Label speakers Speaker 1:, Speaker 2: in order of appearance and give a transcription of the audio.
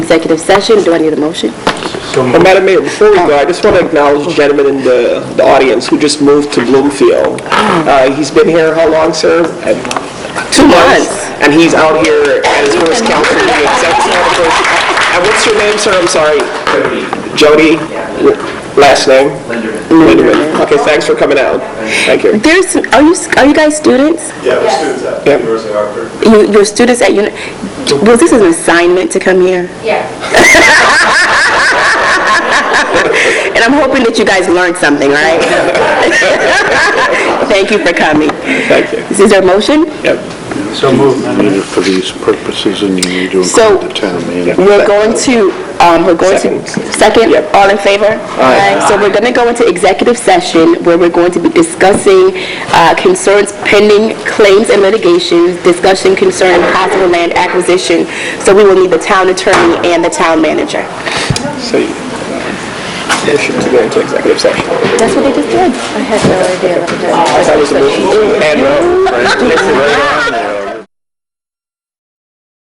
Speaker 1: executive session. Do I need a motion?
Speaker 2: So
Speaker 3: Well,
Speaker 2: moved.
Speaker 3: Madam Mayor, before we go, I just want to acknowledge the gentleman in the, the audience who just moved to Bloomfield. Uh, he's been here how long, sir? Uh, Two
Speaker 1: months.
Speaker 3: And he's out here at his first council meeting. So I just wanna first- And what's your name, sir? I'm sorry. Jody? Last name? Linderman. Okay, thanks for coming out. Thank you.
Speaker 1: There's, are you, are you guys students?
Speaker 4: Yeah, we're students at
Speaker 3: Yep.
Speaker 4: University of Hartford.
Speaker 1: You, you're students at, uni- was this an assignment to come here?
Speaker 5: Yeah.
Speaker 1: And I'm hoping that you guys learned something, right? Thank you for coming.
Speaker 3: Thank you.
Speaker 1: Is there a motion?
Speaker 3: Yep.
Speaker 2: So moved, Madam Mayor.
Speaker 6: For these purposes, and you need to
Speaker 1: So-
Speaker 6: include the town manager.
Speaker 1: We're going to, um, we're going to, second,
Speaker 3: Yep.
Speaker 1: all in favor? Aye. So we're gonna go into executive session where we're going to be discussing, uh, concerns pending claims and litigations, discussion concerning possible land acquisition. So we will need the town attorney and the town manager.
Speaker 3: So you, you should go into executive session.
Speaker 1: That's what they just did. I had no idea.
Speaker 3: That was a motion. And, uh,